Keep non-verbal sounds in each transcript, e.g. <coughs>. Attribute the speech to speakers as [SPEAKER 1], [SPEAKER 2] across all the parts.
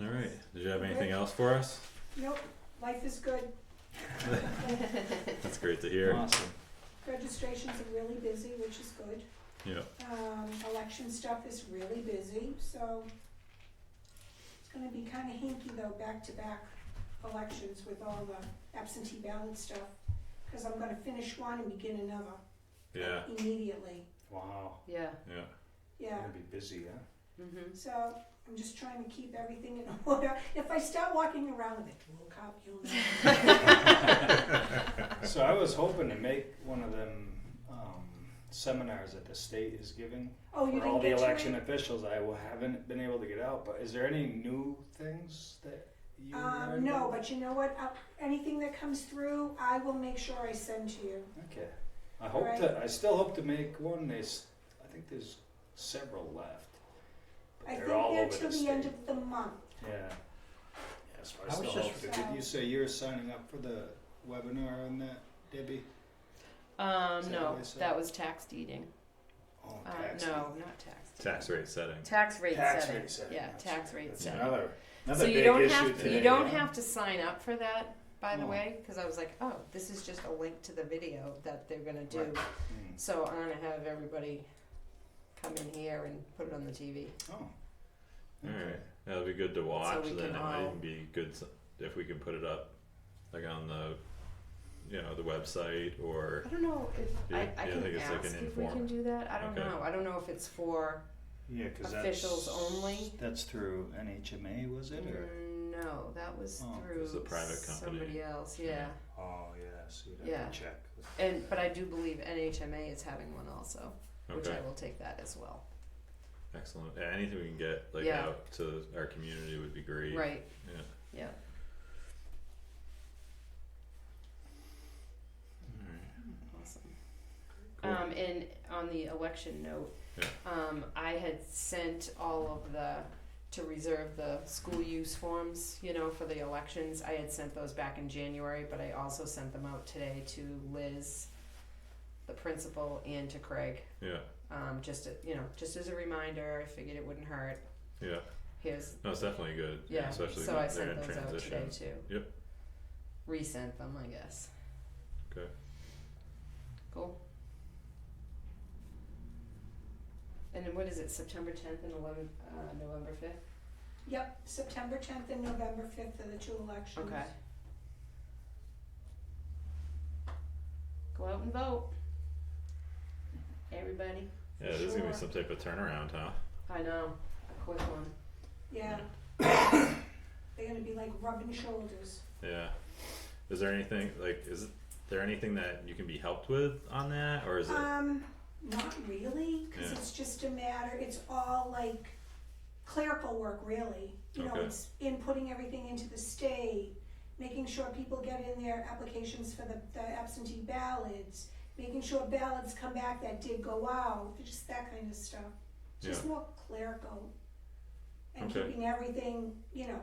[SPEAKER 1] Alright, did you have anything else for us?
[SPEAKER 2] Nope, life is good.
[SPEAKER 1] That's great to
[SPEAKER 3] <laughs>
[SPEAKER 1] hear.
[SPEAKER 4] Awesome.
[SPEAKER 2] Registrations are really busy, which is good.
[SPEAKER 1] Yeah,
[SPEAKER 2] Um, election stuff is really busy, so it's gonna be kinda hinky though, back-to-back elections with all the absentee ballot stuff. Cause I'm gonna finish one and begin another
[SPEAKER 1] yeah,
[SPEAKER 2] immediately,
[SPEAKER 4] Wow.
[SPEAKER 3] Yeah.
[SPEAKER 1] yeah.
[SPEAKER 2] yeah.
[SPEAKER 4] Gonna be busy, huh? <laughs>
[SPEAKER 3] Mm-hmm.
[SPEAKER 2] So I'm just trying to keep everything in <laughs> order. If I start walking around with it, we'll cop, you'll know.
[SPEAKER 4] <laughs> So I was hoping to make one of them um, seminars that the state is giving
[SPEAKER 2] Oh, you
[SPEAKER 4] for all
[SPEAKER 2] didn't
[SPEAKER 4] the
[SPEAKER 2] get to it?
[SPEAKER 4] election officials. I wa- haven't been able to get out, but is there any new things that you?
[SPEAKER 2] Um,
[SPEAKER 4] learned
[SPEAKER 2] no,
[SPEAKER 4] about?
[SPEAKER 2] but you know what, Uh, anything that comes through, I will make sure I send to you.
[SPEAKER 4] Okay. I hope
[SPEAKER 2] Right.
[SPEAKER 4] to. I still hope to make one. There's, I think there's several left. But
[SPEAKER 2] I
[SPEAKER 4] they're
[SPEAKER 2] think
[SPEAKER 4] all
[SPEAKER 2] they're
[SPEAKER 4] over
[SPEAKER 2] till
[SPEAKER 4] the,
[SPEAKER 2] the end
[SPEAKER 4] state.
[SPEAKER 2] of the month.
[SPEAKER 4] Yeah. Yeah, so I,
[SPEAKER 5] I
[SPEAKER 4] still
[SPEAKER 5] was just-
[SPEAKER 4] hope to- Did you say you were signing up for the webinar on that, Debbie?
[SPEAKER 3] Um,
[SPEAKER 4] that
[SPEAKER 3] no,
[SPEAKER 4] what I said?
[SPEAKER 3] that was tax deeding.
[SPEAKER 4] Oh,
[SPEAKER 3] Uh,
[SPEAKER 4] tax
[SPEAKER 3] no,
[SPEAKER 4] rate.
[SPEAKER 3] not tax. deeding.
[SPEAKER 1] Tax rate setting.
[SPEAKER 3] Tax rate
[SPEAKER 4] Tax
[SPEAKER 3] setting.
[SPEAKER 4] rate setting,
[SPEAKER 3] Yeah,
[SPEAKER 4] that's
[SPEAKER 3] tax
[SPEAKER 4] right.
[SPEAKER 3] rate
[SPEAKER 4] That's
[SPEAKER 3] setting.
[SPEAKER 4] Another, another
[SPEAKER 3] So you
[SPEAKER 4] big
[SPEAKER 3] don't
[SPEAKER 4] issue
[SPEAKER 3] have to,
[SPEAKER 4] today.
[SPEAKER 3] you don't
[SPEAKER 4] yeah.
[SPEAKER 3] have to sign up for that, by the
[SPEAKER 4] No.
[SPEAKER 3] way, because I was like, oh, this is just a link to the video that they're gonna do.
[SPEAKER 4] Right. Hmm.
[SPEAKER 3] So I'm gonna have everybody come in here and put it on the TV.
[SPEAKER 4] Oh.
[SPEAKER 1] Alright, that'll be good to watch,
[SPEAKER 3] we
[SPEAKER 1] then it
[SPEAKER 3] can
[SPEAKER 1] might
[SPEAKER 3] all-
[SPEAKER 1] even be good s- if we can put it up, like on the, you know, the website or,
[SPEAKER 3] I don't know if I,
[SPEAKER 1] Yeah,
[SPEAKER 3] I
[SPEAKER 1] yeah, I
[SPEAKER 3] can
[SPEAKER 1] think it's like an
[SPEAKER 3] ask if we can
[SPEAKER 1] inform-
[SPEAKER 3] do that. I don't
[SPEAKER 1] Okay.
[SPEAKER 3] know. I don't know if it's for
[SPEAKER 4] Yeah, because
[SPEAKER 3] Officials
[SPEAKER 4] that's,
[SPEAKER 3] only?
[SPEAKER 4] That's through NHMA, was it? Or?
[SPEAKER 3] no, that was
[SPEAKER 4] Oh.
[SPEAKER 3] through
[SPEAKER 1] It's a private company.
[SPEAKER 3] somebody else.
[SPEAKER 1] Yeah.
[SPEAKER 3] Yeah.
[SPEAKER 4] Oh yeah, so you'd have
[SPEAKER 3] Mm-hmm. Yeah.
[SPEAKER 4] to check.
[SPEAKER 3] And but I do believe NHMA is having one also, which
[SPEAKER 1] okay,
[SPEAKER 3] I will take that as well.
[SPEAKER 1] excellent. Yeah, anything we can get like
[SPEAKER 3] Yeah.
[SPEAKER 1] out to our community would be great.
[SPEAKER 3] Right.
[SPEAKER 1] Yeah.
[SPEAKER 3] Yeah.
[SPEAKER 1] Alright,
[SPEAKER 3] Awesome.
[SPEAKER 1] Cool.
[SPEAKER 3] Um, and on the election note,
[SPEAKER 1] Yeah.
[SPEAKER 3] um, I had sent all of the to reserve the school use forms, you know, for the elections. I had sent those back in January, but I also sent them out today to Liz, the principal, and to Craig.
[SPEAKER 1] Yeah,
[SPEAKER 3] Um, just a, you know, just as a reminder, I figured it wouldn't hurt.
[SPEAKER 1] yeah,
[SPEAKER 3] Here's
[SPEAKER 1] no, it's definitely good, yeah,
[SPEAKER 3] yeah.
[SPEAKER 1] especially
[SPEAKER 3] so
[SPEAKER 1] when
[SPEAKER 3] I
[SPEAKER 1] they're
[SPEAKER 3] sent
[SPEAKER 1] in
[SPEAKER 3] those out
[SPEAKER 1] transition.
[SPEAKER 3] today too.
[SPEAKER 1] Yep.
[SPEAKER 3] Resent them, I guess.
[SPEAKER 1] Okay.
[SPEAKER 3] Cool. And then what is it, September tenth and eleven, uh, November fifth?
[SPEAKER 2] Yep, September tenth and November fifth are the two elections.
[SPEAKER 3] Okay. Go out and vote. Everybody.
[SPEAKER 1] Yeah, there's gonna be
[SPEAKER 2] Sure.
[SPEAKER 1] some type of turnaround, huh?
[SPEAKER 3] I know, a quick one.
[SPEAKER 2] Yeah. <coughs> They're gonna be like rubbing shoulders.
[SPEAKER 1] Yeah. Is there anything like is there anything that you can be helped with on that or is it
[SPEAKER 2] Um, not really, cause
[SPEAKER 1] Yeah.
[SPEAKER 2] it's just a matter, it's all like clerical work really. You know,
[SPEAKER 1] Okay.
[SPEAKER 2] it's inputting everything into the state, making sure people get in their applications for the, the absentee ballots, making sure ballots come back that did go out, just that kind of stuff. Just more clerical and
[SPEAKER 1] Okay.
[SPEAKER 2] keeping everything, you know,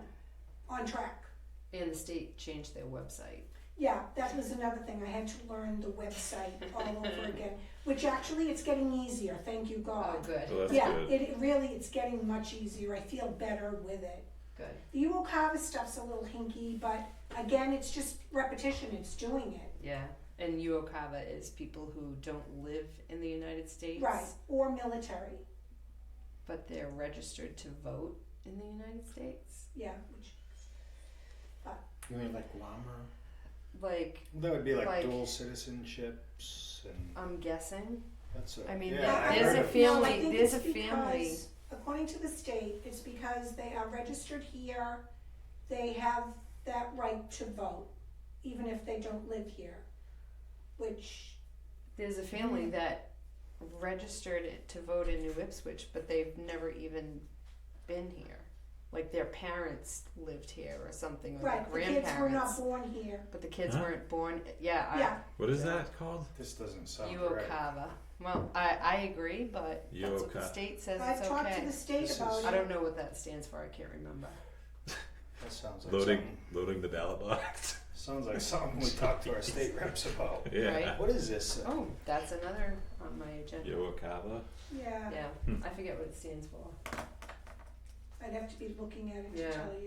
[SPEAKER 2] on track.
[SPEAKER 3] And the state changed their website.
[SPEAKER 2] Yeah, that was another thing. I had to learn the website all over again, which actually it's getting easier. Thank you,
[SPEAKER 3] Oh,
[SPEAKER 2] God.
[SPEAKER 3] good,
[SPEAKER 1] Well, that's
[SPEAKER 2] yeah,
[SPEAKER 1] good.
[SPEAKER 2] It, it really it's getting much easier. I feel better with it.
[SPEAKER 3] good.
[SPEAKER 2] The UO Carver stuff's a little hinky, but again, it's just repetition. It's doing it
[SPEAKER 3] Yeah, and Uokava is people who don't live in the United States,
[SPEAKER 2] right or military.
[SPEAKER 3] But they're registered to vote in the United States.
[SPEAKER 2] Yeah, which
[SPEAKER 5] You mean like llama?
[SPEAKER 3] Like
[SPEAKER 4] Well, that would be like,
[SPEAKER 3] Like-
[SPEAKER 4] dual citizenships and
[SPEAKER 3] I'm guessing.
[SPEAKER 4] that's a.
[SPEAKER 3] I mean,
[SPEAKER 4] yeah,
[SPEAKER 2] I- I
[SPEAKER 4] I've
[SPEAKER 3] there's
[SPEAKER 4] heard
[SPEAKER 3] a
[SPEAKER 4] of-
[SPEAKER 3] few- family-
[SPEAKER 2] No, I think
[SPEAKER 3] there's
[SPEAKER 2] it's
[SPEAKER 3] a family-
[SPEAKER 2] because, According to the state, it's because they are registered here, they have that right to vote, even if they don't live here. Which,
[SPEAKER 3] There's a
[SPEAKER 2] Mm-hmm.
[SPEAKER 3] family that registered it to vote in New Ipswich, but they've never even been here. Like their parents lived here or something, or
[SPEAKER 2] right, the
[SPEAKER 3] their
[SPEAKER 2] kids
[SPEAKER 3] grandparents.
[SPEAKER 2] were not born here,
[SPEAKER 3] but the kids
[SPEAKER 1] Huh?
[SPEAKER 3] weren't born. Yeah, I,
[SPEAKER 2] yeah,
[SPEAKER 1] what is
[SPEAKER 4] Yeah.
[SPEAKER 1] that called?
[SPEAKER 4] This doesn't sound right.
[SPEAKER 3] Uokava. Well, I, I agree, but that's what the
[SPEAKER 1] Uoka-
[SPEAKER 3] state says
[SPEAKER 2] I've
[SPEAKER 3] it's
[SPEAKER 2] talked
[SPEAKER 3] okay.
[SPEAKER 2] to the state
[SPEAKER 4] This
[SPEAKER 2] about
[SPEAKER 4] is-
[SPEAKER 2] it.
[SPEAKER 3] I don't know what that stands for. I can't remember.
[SPEAKER 4] That sounds like
[SPEAKER 1] Loading
[SPEAKER 4] something.
[SPEAKER 1] loading the ballot box. <laughs>
[SPEAKER 4] Sounds like something we talked to our state reps
[SPEAKER 3] <laughs>
[SPEAKER 4] about.
[SPEAKER 1] yeah.
[SPEAKER 4] What is this? uh,
[SPEAKER 3] Oh, that's another on my agenda.
[SPEAKER 1] Yoakava.
[SPEAKER 2] Yeah,
[SPEAKER 3] Yeah,
[SPEAKER 1] Hmm.
[SPEAKER 3] I forget what it stands for.
[SPEAKER 2] I'd have to be looking at it to
[SPEAKER 3] Yeah.
[SPEAKER 2] tell you.